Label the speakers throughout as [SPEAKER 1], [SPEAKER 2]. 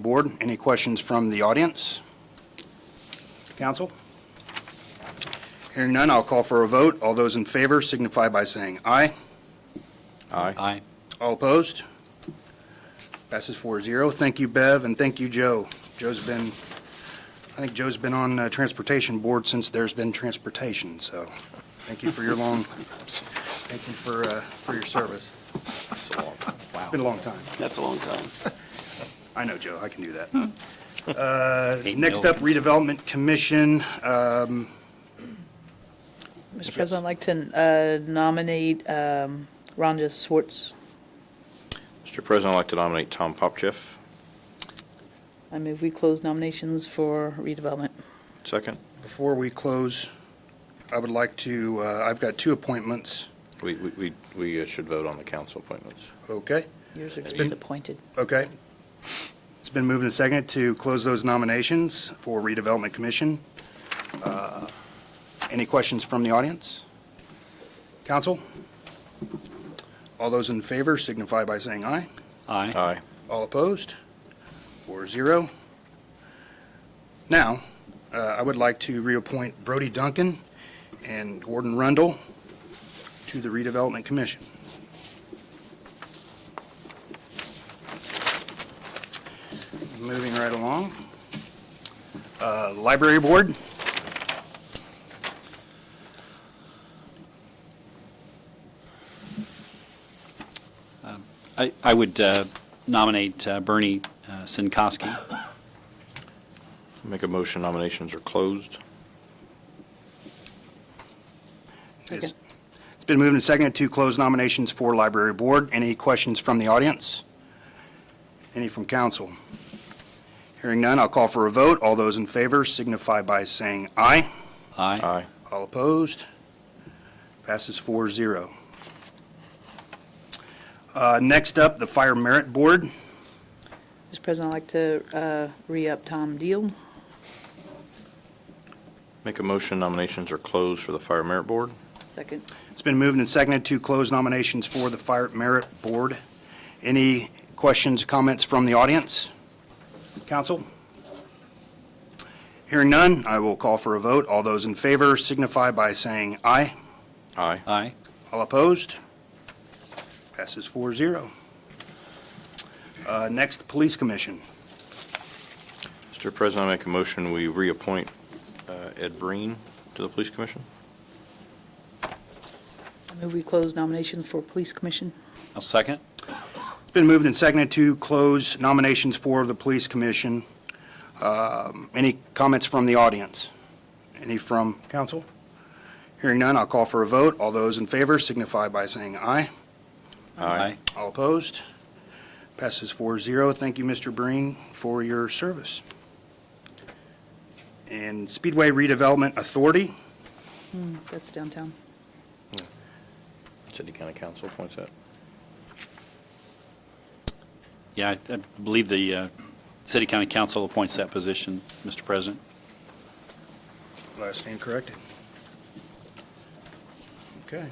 [SPEAKER 1] Board, any questions from the audience? Council? Hearing none, I'll call for a vote. All those in favor signify by saying aye.
[SPEAKER 2] Aye.
[SPEAKER 3] Aye.
[SPEAKER 1] All opposed? Passes 4-0. Thank you, Bev, and thank you, Joe. Joe's been, I think Joe's been on uh, Transportation Board since there's been transportation, so thank you for your long, thank you for, uh, for your service. It's Been a long time.
[SPEAKER 3] That's a long time.
[SPEAKER 1] I know, Joe, I can do that. Uh,
[SPEAKER 3] Eight
[SPEAKER 1] Next up, redevelopment commission. Um,
[SPEAKER 4] Mr. President, I'd like to uh, nominate um, Rhonda Swartz.
[SPEAKER 2] Mr. President, I'd like to nominate Tom Popchiff.
[SPEAKER 4] I move we close nominations for redevelopment.
[SPEAKER 2] Second.
[SPEAKER 1] Before we close, I would like to, uh, I've got two appointments.
[SPEAKER 2] We, we- we, we uh, should vote on the council appointments.
[SPEAKER 1] Okay,
[SPEAKER 4] Yours are to
[SPEAKER 1] been-
[SPEAKER 4] be appointed.
[SPEAKER 1] okay. It's been moved and seconded to close those nominations for redevelopment commission. Uh, Any questions from the audience? Council? All those in favor signify by saying aye.
[SPEAKER 3] Aye.
[SPEAKER 2] Aye.
[SPEAKER 1] All opposed? Four zero. Now, uh, I would like to reappoint Brody Duncan and Gordon Rundle to the Redevelopment Commission. Moving right along. Uh, Library Board,
[SPEAKER 3] I, I would uh, nominate uh, Bernie uh, Sinkowski.
[SPEAKER 2] Make a motion nominations are closed.
[SPEAKER 1] it's it's been moved and seconded to close nominations for Library Board. Any questions from the audience? Any from council? Hearing none, I'll call for a vote. All those in favor signify by saying aye.
[SPEAKER 3] Aye.
[SPEAKER 2] Aye.
[SPEAKER 1] All opposed? Passes 4-0. Uh, Next up, the Fire Merit Board.
[SPEAKER 4] Mr. President, I'd like to uh, re-up Tom Deal.
[SPEAKER 2] Make a motion nominations are closed for the Fire Merit Board.
[SPEAKER 4] Second.
[SPEAKER 1] It's been moved and seconded to close nominations for the Fire Merit Board. Any questions, comments from the audience? Council? Hearing none, I will call for a vote. All those in favor signify by saying aye.
[SPEAKER 2] Aye.
[SPEAKER 3] Aye.
[SPEAKER 1] All opposed? Passes 4-0. Uh, Next, Police Commission.
[SPEAKER 2] Mr. President, I make a motion we reappoint uh, Ed Breen to the Police Commission.
[SPEAKER 4] I move we close nominations for police commission.
[SPEAKER 3] I'll second.
[SPEAKER 1] Been moved and seconded to close nominations for the Police Commission. Um, Any comments from the audience? Any from council? Hearing none, I'll call for a vote. All those in favor signify by saying aye. All opposed? Passes 4-0. Thank you, Mr. Breen, for your service. And Speedway Redevelopment Authority,
[SPEAKER 4] Hmm, That's downtown.
[SPEAKER 2] City County Council appoints that.
[SPEAKER 3] Yeah, I- I believe the uh, City County Council appoints that position, Mr. President.
[SPEAKER 1] last name corrected. Okay.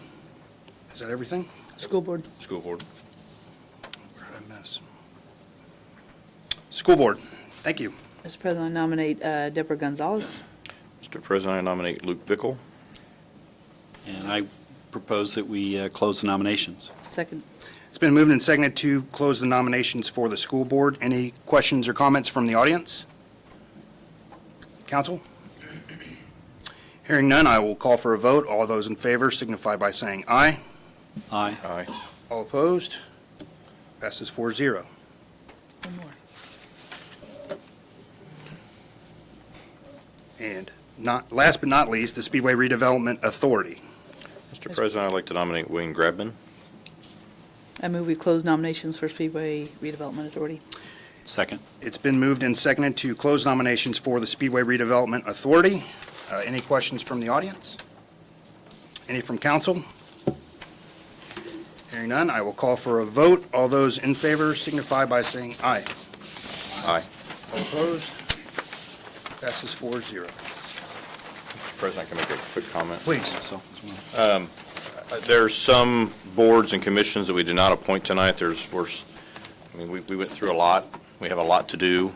[SPEAKER 1] Is that everything?
[SPEAKER 4] School board.
[SPEAKER 2] School Board.
[SPEAKER 1] Where did I miss? School Board, thank you.
[SPEAKER 4] Mr. President, I nominate uh, Deborah Gonzalez.
[SPEAKER 2] Mr. President, I nominate Luke Bickle.
[SPEAKER 3] And I propose that we uh, close the nominations.
[SPEAKER 4] Second.
[SPEAKER 1] It's been moved and seconded to close the nominations for the School Board. Any questions or comments from the audience? Council? Hearing none, I will call for a vote. All those in favor signify by saying aye.
[SPEAKER 3] Aye.
[SPEAKER 2] Aye.
[SPEAKER 1] All opposed? Passes 4-0.
[SPEAKER 4] One more.
[SPEAKER 1] And not, last but not least, the Speedway Redevelopment Authority.
[SPEAKER 2] Mr. President, I'd like to nominate Wayne Grabman.
[SPEAKER 4] I move we close nominations for Speedway Redevelopment Authority.
[SPEAKER 3] Second.
[SPEAKER 1] It's been moved and seconded to close nominations for the Speedway Redevelopment Authority. Uh, Any questions from the audience? Any from council? Hearing none, I will call for a vote. All those in favor signify by saying aye.
[SPEAKER 2] Aye.
[SPEAKER 1] All opposed? Passes 4-0.
[SPEAKER 2] Mr. President, I can make a quick comment.
[SPEAKER 1] Please.
[SPEAKER 3] Myself as well.
[SPEAKER 2] There's some boards and commissions that we did not appoint tonight. There's, we're, s- I mean, we, we went through a lot. We have a lot to do.